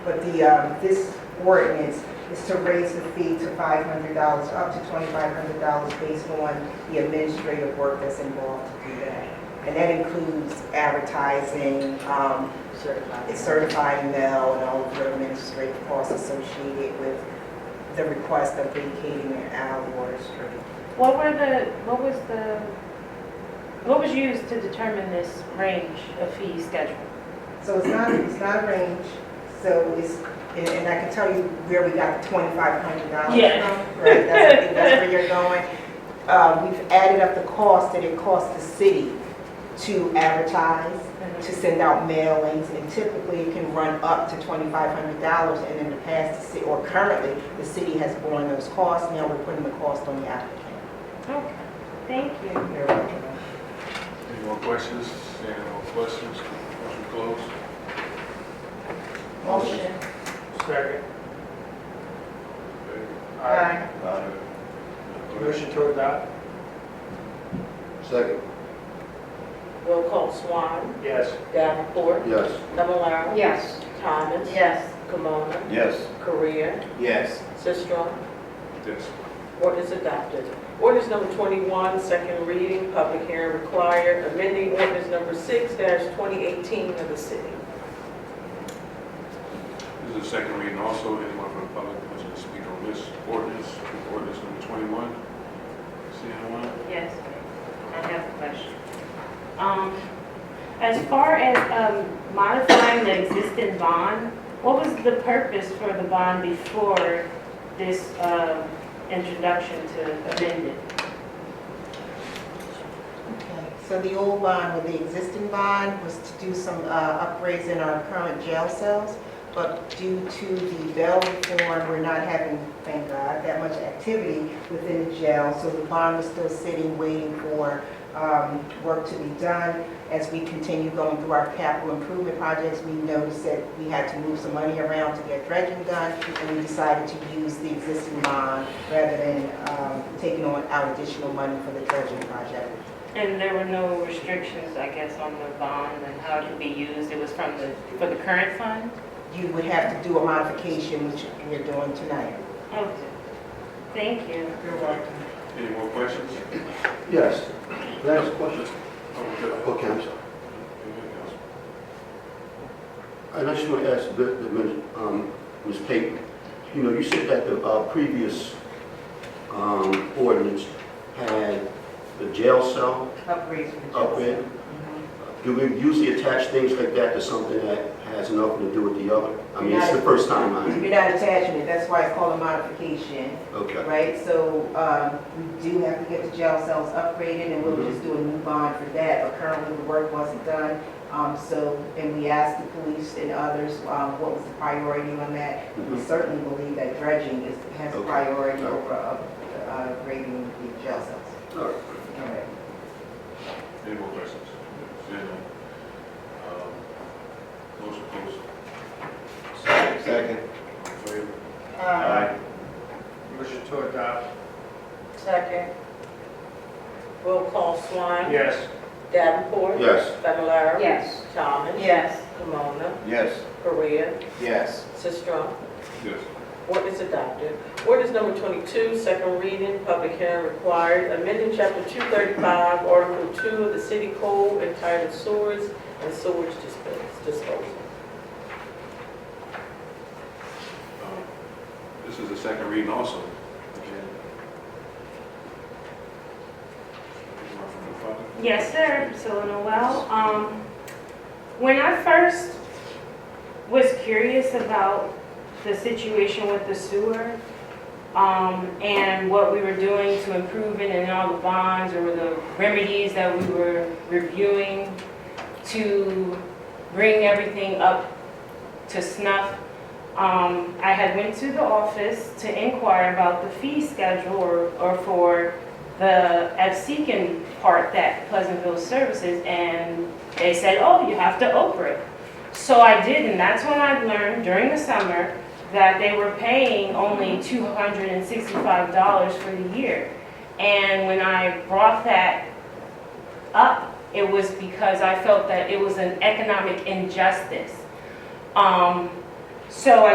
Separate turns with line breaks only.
But the, um, this ordinance is to raise the fee to five hundred dollars, up to twenty-five hundred dollars based on the administrative work that's involved to do that. And that includes advertising, um,
Certified.
certifying mail and all of the administrative costs associated with the request of vacating an alley or a street.
What were the, what was the, what was used to determine this range of fee schedule?
So it's not, it's not a range, so it's, and and I can tell you where we got the twenty-five hundred dollars
Yeah.
from. Right, that's, I think that's where you're going. Uh, we've added up the cost that it costs the city to advertise, to send out mailings, and typically it can run up to twenty-five hundred dollars. And in the past, the ci- or currently, the city has borne those costs, now we're putting the cost on the applicant.
Okay, thank you.
You're welcome.
Any more questions? Any more questions? Motion closed.
Motion.
Second.
Okay.
Aye.
Motion.
Motion to adopt?
Second,
Roll call Swan,
Yes.
Davenport,
yes.
Fablelaro.
Yes.
Thomas.
Yes.
Kimona,
Yes.
Korea,
Yes.
Sistrum.
Yes.
Ordinance adopted. Ordinance number 21, second reading, public hearing required, amending ordinance number 6-2018 of the city.
This is the second reading also. Anyone from the public wishing to speak on this ordinance, ordinance number 21? Seeing anyone?
Yes, I have a question. Um, as far as, um, modifying the existing bond, what was the purpose for the bond before this, um, introduction to amend it?
So the old bond with the existing bond was to do some uh, upgrades in our current jail cells, but due to the bail reform, we're not having, thank God, that much activity within the jail, so the bond was still sitting, waiting for um, work to be done. As we continue going through our capital improvement projects, we noticed that we had to move some money around to get dredging done, and we decided to use the existing bond rather than um, taking on out additional money for the dredging project.
And there were no restrictions, I guess, on the bond and how it could be used? It was from the, for the current fund?
you would have to do a modification, which we're doing tonight.
Okay, thank you.
You're welcome.
Any more questions?
Yes. Can I ask a question?
Okay.
Okay, I'm sorry. And I just want to ask the, the, min- um, Ms. Payton, you know, you said that the, uh, previous, um, ordinance had the jail cell
Upgrade. for the Mm-hmm.
up in. Do we usually attach things like that to something that has nothing to do with the other? I mean, it's the first time I,
You're not attaching it, that's why it's called a modification,
okay,
right? So um, we do have to get the jail cells upgraded, and
Mm-hmm.
we'll just do a new bond for that, but currently the work wasn't done. Um, So, and we asked the police and others, um, what was the priority on that? We
Mhm.
certainly believe that dredging is, has
Okay.
priority
All right.
over up- uh, grading the jail cells.
all right.
All right.
Any more questions? Seeing none. Um, Motion closed.
Second.
All in favor?
Aye.
Motion to adopt?
Second. Roll call Swan.
Yes.
Davenport.
Yes.
Fablelaro.
Yes.
Thomas.
Yes.
Kimona,
Yes.
Korea,
Yes.
Sistrum.
Yes.
Ordinance adopted. Ordinance number 22, second reading, public hearing required, amending Chapter 235, Article 2 of the City Code entitled Sewers and Sewage Dispo- Disposal.
Um, This is the second reading also. Again. Anyone from the public?
Yes, sir, so Noel, um, when I first was curious about the situation with the sewer, um, and what we were doing to improve it and all the bonds or the remedies that we were reviewing to bring everything up to snuff, um, I had went to the office to inquire about the fee schedule or, or for the Absecon part that Pleasantville services, and they said, oh, you have to Oprah it. So I did, and that's when I learned during the summer that they were paying only two hundred and sixty-five dollars for the year. And when I brought that up, it was because I felt that it was an economic injustice. Um, So I